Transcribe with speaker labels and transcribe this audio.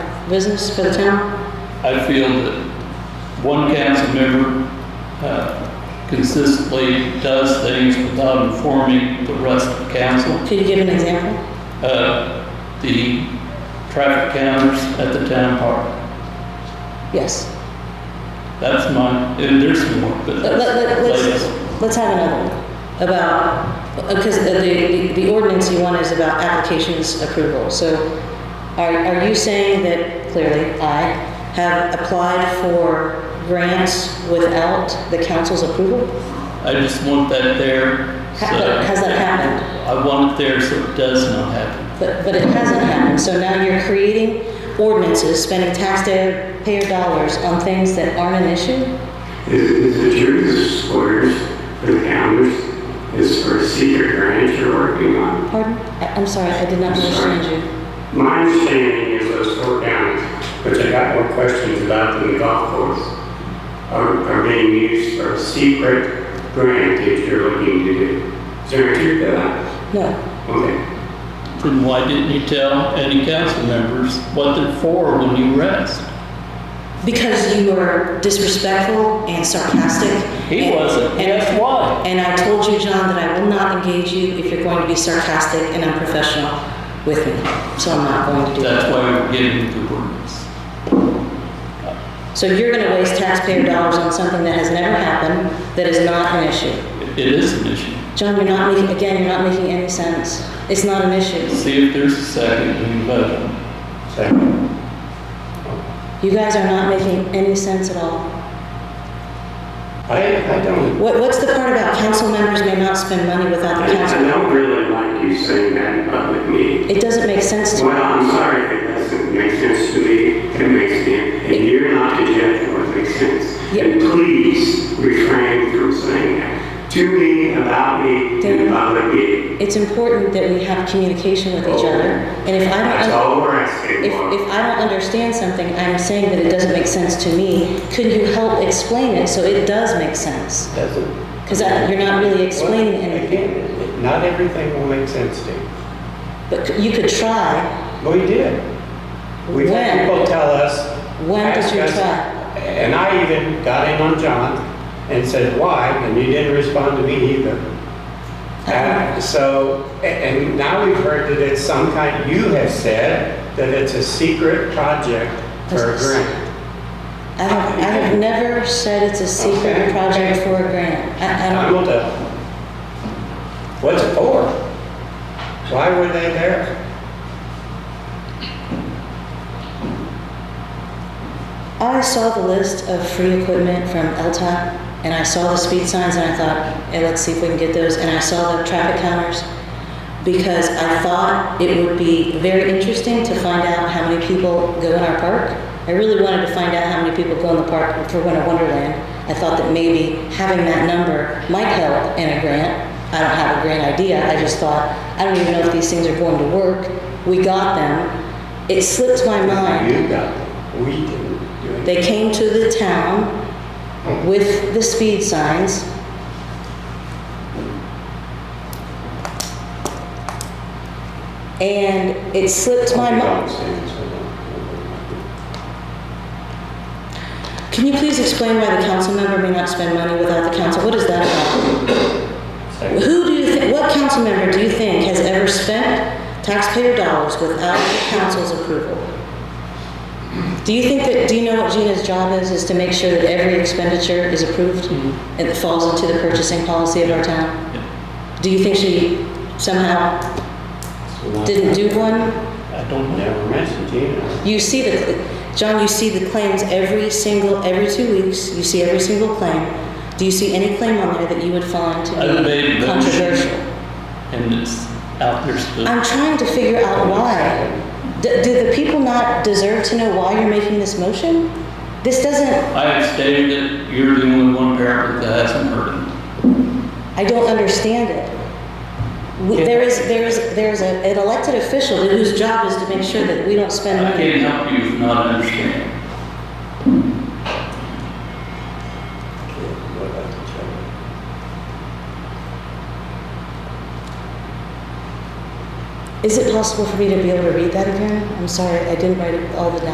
Speaker 1: business for the town?
Speaker 2: I feel that one council member uh, consistently does things without informing the rest of the council.
Speaker 1: Could you give an example?
Speaker 2: Uh, The traffic counters at the town park,
Speaker 1: Yes.
Speaker 2: that's mine, and there's more, but
Speaker 1: Let, let, let-
Speaker 2: that's later.
Speaker 1: let's, let's have another one about, because the, the, the ordinance you want is about applications approval. So are, are you saying that clearly I have applied for grants without the council's approval?
Speaker 2: I just want that there.
Speaker 1: Ha-
Speaker 2: so-
Speaker 1: but has that happened?
Speaker 2: I want it there so it does not happen.
Speaker 1: But, but it hasn't happened. So now you're creating ordinances, spending taxpayer dollars on things that aren't an issue?
Speaker 3: Is the church's squares or the counters is for secret grants you're working on?
Speaker 1: Pardon? I- I'm sorry, I did not understand you.
Speaker 3: My understanding is those four counties, which I got more questions about than the golf course, are, are being used for a secret grant that you're looking to do. Is there any truth to that?
Speaker 1: No,
Speaker 3: Okay.
Speaker 2: Then why didn't you tell any council members what they're for when you asked?
Speaker 1: because you were disrespectful and sarcastic.
Speaker 2: He
Speaker 1: and-
Speaker 2: wasn't.
Speaker 1: and-
Speaker 2: Guess why?
Speaker 1: And I told you, John, that I will not engage you if you're going to be sarcastic and unprofessional with me. So I'm not going to do
Speaker 2: That's
Speaker 1: that.
Speaker 2: why we're getting the ordinance.
Speaker 1: So you're going to waste taxpayer dollars on something that has never happened, that is not an issue.
Speaker 2: It it is an issue.
Speaker 1: John, you're not making, again, you're not making any sense. It's not an issue.
Speaker 2: See if there's a second, we can vote on it.
Speaker 3: Second.
Speaker 1: You guys are not making any sense at all.
Speaker 3: I, I don't.
Speaker 1: What, what's the part about council members may not spend money without the
Speaker 3: I, I
Speaker 1: council?
Speaker 3: don't really like you saying that in public meeting.
Speaker 1: It doesn't make sense to me.
Speaker 3: Well, I'm sorry, if it doesn't make sense to me, it makes me, and you're not the judge of what makes sense.
Speaker 1: Yeah.
Speaker 3: And please refrain from saying that to me, about me, and
Speaker 1: David.
Speaker 3: about the meeting.
Speaker 1: It's important that we have communication with each other, and if I
Speaker 3: That's
Speaker 1: don't, un-
Speaker 3: all we're asking
Speaker 1: if,
Speaker 3: for.
Speaker 1: if I don't understand something, I'm saying that it doesn't make sense to me, could you help explain it so it does make sense?
Speaker 4: Doesn't.
Speaker 1: Because you're not really explaining
Speaker 4: Well,
Speaker 1: anything,
Speaker 4: Again, not everything will make sense to you.
Speaker 1: but c- you could try.
Speaker 4: Well, you did. We've had
Speaker 1: When?
Speaker 4: people tell us.
Speaker 1: When did
Speaker 4: ask
Speaker 1: you
Speaker 4: us-
Speaker 1: try?
Speaker 4: And I even got in on John and said, why? And you didn't respond to me either.
Speaker 1: Uh-huh.
Speaker 4: And so, a- and now we've heard that it's some kind, you have said that it's a secret project for a
Speaker 1: That's-
Speaker 4: grant.
Speaker 1: I have, I have never said it's a secret
Speaker 4: Okay.
Speaker 1: project for a grant. I, I
Speaker 4: I
Speaker 1: don't,
Speaker 4: will tell. you. What's it for? Why were they there?
Speaker 1: I saw the list of free equipment from LTAP, and I saw the speed signs, and I thought, hey, let's see if we can get those, and I saw the traffic counters, because I thought it would be very interesting to find out how many people go in our park. I really wanted to find out how many people go in the park for Winter Wonderland. I thought that maybe having that number might help in a grant. I don't have a grant idea, I just thought, I don't even know if these things are going to work. We got them. It slipped my mind.
Speaker 4: You got them. We didn't do anything.
Speaker 1: Uh-huh. They came to the town with the speed signs. And it slipped my mind. Can you please explain why the council member may not spend money without the council? What is that about? Who do you think, what council member do you think has ever spent taxpayer dollars without the council's approval? Do you think that, do you know what Gina's job is, is to make sure that every expenditure is approved and it falls into the purchasing policy of our town? Do you think she somehow didn't do one?
Speaker 2: I don't know.
Speaker 4: Never mentioned Gina.
Speaker 1: You see the, John, you see the claims every single, every two weeks, you see every single claim. Do you see any claim on there that you would find to
Speaker 2: I made
Speaker 1: be
Speaker 2: a motion.
Speaker 1: controversial?
Speaker 2: And it's out there still.
Speaker 1: I'm trying to figure out why. D- Do the people not deserve to know why you're making this motion? This doesn't,
Speaker 2: I have stated that you're the only one parent that hasn't heard it.
Speaker 1: I don't understand it. We- There is, there is, there is a- an elected official whose job is to make sure that we don't spend
Speaker 2: I
Speaker 1: money.
Speaker 2: can't help you if not understanding.
Speaker 4: What about the children?
Speaker 1: Is it possible for me to be able to read that again? I'm sorry, I didn't write it all the down.